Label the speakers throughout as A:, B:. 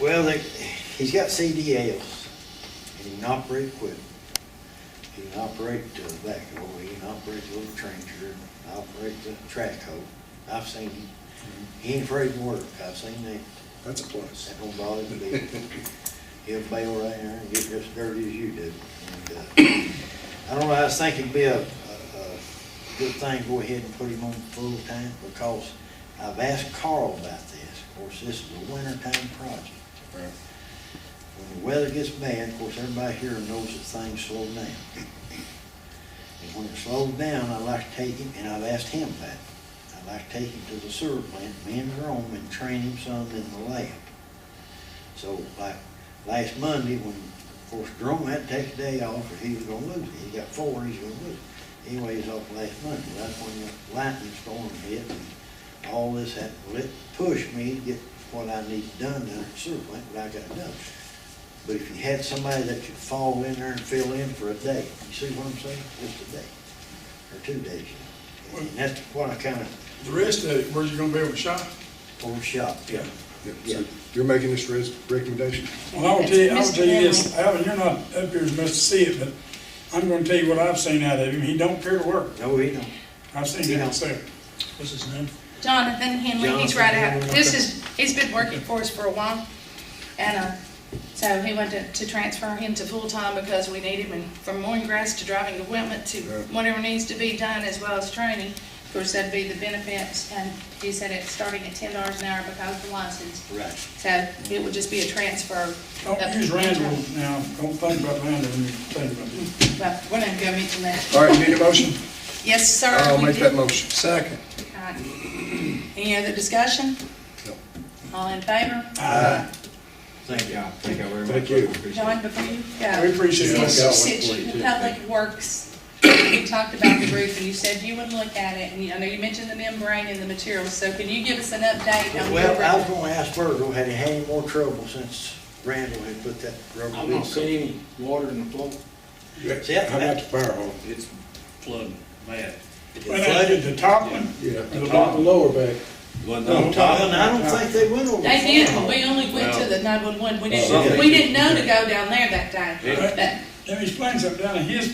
A: Well, they, he's got CDLs, and he can operate equipment. He can operate the backhoe, he can operate the little trencher, operate the track hoe. I've seen him, he ain't afraid to work, I've seen that,
B: That's a plus.
A: that don't bother him a bit. He'll bail right there and get just dirty as you do. And, uh, I don't know, I just think it'd be a, a, a good thing, to go ahead and put him on full-time, because I've asked Carl about this. Of course, this is a wintertime project. When the weather gets bad, of course, everybody here knows that things slow down. And when it slows down, I like to take him, and I've asked him that, I like to take him to the sewer plant, me and Jerome, and train him some in the lab. So like last Monday, when, of course, Jerome had to take a day off, or he was gonna lose it, he got four, he's gonna lose it. Anyway, he's off last Monday, that's when the lightning storm hit, and all this had, lit pushed me to get what I need done down at the sewer plant, but I got it done. But if you had somebody that could fall in there and fill in for a day, you see what I'm saying? Just a day, or two days. you know. And that's what I kind of
C: The rest of it, where's it gonna be able to shop?
A: overshot.
C: Yeah.
B: Yeah, so you're making this res- recommendation?
C: Well, I will tell you, I will tell you this, Alvin, you're not up here as much to see it, but I'm gonna tell you what I've seen out of him. He don't care to work.
A: No, he don't.
C: I've seen that there. What's his name?
D: Jonathan Henley, he's
A: Jonathan
D: right out,
A: Henley.
D: this is, he's been working for us for a while, and, uh, so he wanted to transfer him to full-time because we need him in- from mowing grass to driving equipment to
B: Right.
D: whatever needs to be done as well as training. Of course, that'd be the benefits, and he said it's starting at ten dollars an hour because of the license,
A: Right.
D: so it would just be a transfer.
C: Don't
D: of-
C: use Oh, Randall now. Don't think about Randall when you think about it.
D: But we're not gonna go into that.
B: All right, you need a motion?
D: Yes, sir.
B: I'll
D: we
B: make
D: did-
B: that motion. Second.
D: All right. Any other discussion?
B: No.
D: All in favor?
A: Thank you.
E: Thank you very much.
B: Thank you.
D: John, before you go.
C: We appreciate
B: Yeah.
C: it.
D: Since,
B: got one
D: since
B: for you,
D: the Public Works, we talked about the roof, and you said you would look at it, and you- I know you mentioned the membrane and the materials, so can you give us an update on your
A: Well, I was
D: roof?
A: gonna ask Virgil, had he had any more trouble since Randall had put that rubber
F: I'm not
A: leak on?
F: seeing any water in the floor.
A: Yeah.
B: How about the fire hall?
F: It's flooding bad.
A: It
C: Well, that-
A: flooded.
C: uh, The top one?
B: Yeah.
C: The bottom?
B: lower back.
F: Wasn't
C: No.
F: on top.
A: Well, and I don't think they went over.
D: They
A: the
D: did,
A: phone.
D: but we only went to
F: Well,
D: the nine-one-one, we
F: something-
D: didn't, we didn't know to go down there that day.
C: Right.
D: But
C: Let me explain something. Down in his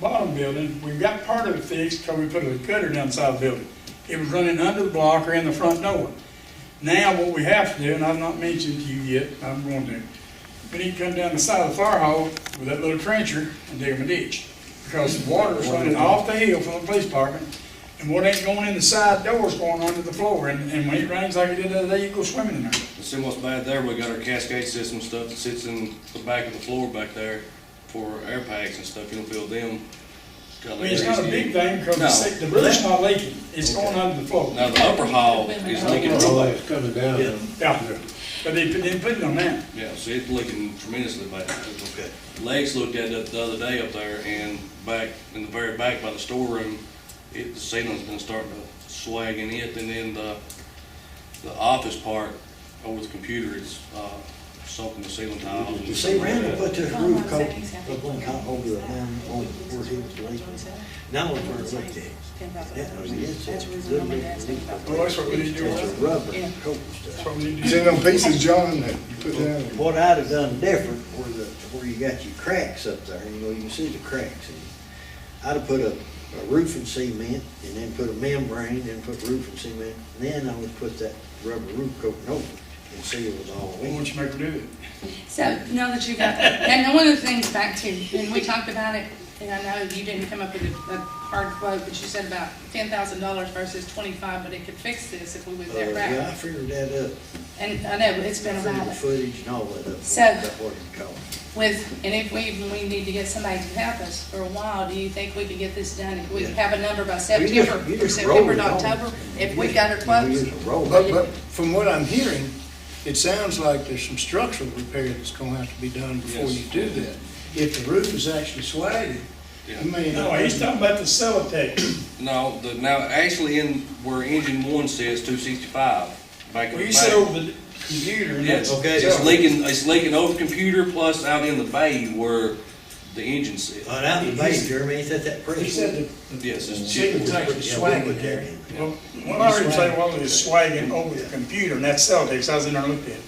C: bottom building, we got part of it fixed because we put a gutter down the side of the building. It was running under the block or in the front door. Now what we have to do, and I've not mentioned to you yet, I'm going to, we need to come down the side of the fire hall with that little trencher and dig them a ditch. Because the water is running off the hill from the police department and what ain't going in the side door is going under the floor. And, and when it rains like it did the other day, you go swimming in there.
F: And See what's bad there, we got our cascade system stuff that sits in the back of the floor back there for air packs and stuff, you don't feel them.
C: I mean, it's not a big thing because
F: No.
C: the se- the roof's not leaking. It's going under the floor.
F: Now, the upper hall is leaking real bad,
B: It's coming down.
C: Yeah, but they put- didn't put it on that.
F: yeah, see, it's leaking tremendously bad.
A: Okay.
F: Legs looked at it the other day up there and back, in the very back by the storeroom, it, the ceiling's been starting to swag in it and then the, the office part over the computer is, uh, soaking the ceiling tiles. and
A: You see,
F: stuff like
A: Randall
F: that.
A: put this
D: Hold
A: roof
D: on a
A: coat,
D: second, sir.
A: up on top over the down on where he was leaking. Now it's where it leaked at. That was it. It's
D: That's
A: that
D: the reason
A: little
D: my dad's
A: leak.
D: thinking about
C: Well, that's what we need to do.
A: It's a
C: That's
A: rubber
D: Yeah.
A: coat and stuff.
C: what we need to
B: Is
C: do.
B: it on pieces, John, that you put down?
A: What I'd have done different where the, where you got your cracks up there, you know, you can see the cracks. in. I'd have put a, a roof and cement and then put a membrane, then put roof and cement. Then I would put that rubber roof coating over it and see it was all
C: I
A: in.
C: want you to make her do it.
D: So now that you got that, and one of the things back to, and we talked about it, and I know you didn't come up with a, a hard quote, but you said about ten thousand dollars versus twenty-five, but it could fix this if we was
A: Uh,
D: there
A: Yeah, I
D: back.
A: figured that up.
D: And I know, it's been a
A: Figured the
D: while.
A: footage and all that up.
D: So-
A: About what it cost.
D: With, and if we, even we need to get somebody to help us for a while, do you think we could get this done? If we
A: Yeah.
D: have a number by
A: You just-
D: September,
A: you
D: or
A: just roll
D: September
A: it
D: to
A: on.
D: October, if we
A: You
D: got it
A: just-
D: close?
A: You just roll it.
G: But, but from what I'm hearing, it sounds like there's some structural repair that's gonna have to be done before
F: Yes.
G: you do that. If the roof is actually swagged,
F: Yeah.
G: you may.
C: No, he's talking about the sellotape.
F: No, the, now, actually in where engine one says two sixty-five, back in
C: Well,
F: the
C: you said over
F: back.
C: the computer. and
F: Yes,
C: that's-
A: Okay.
F: it's leaking, it's leaking over computer plus out in the bay where the engine sits.
A: But out in the bay, Jeremy, ain't that that pretty?
G: He said that
F: Yes,
G: the
F: it's.
G: signal's actually
A: Yeah, we'll put
G: swagged
A: that
G: there.
A: in.
C: Well, when I heard you say, well, it's swagging over the computer and that's sellotape, so I was in there and looked at it.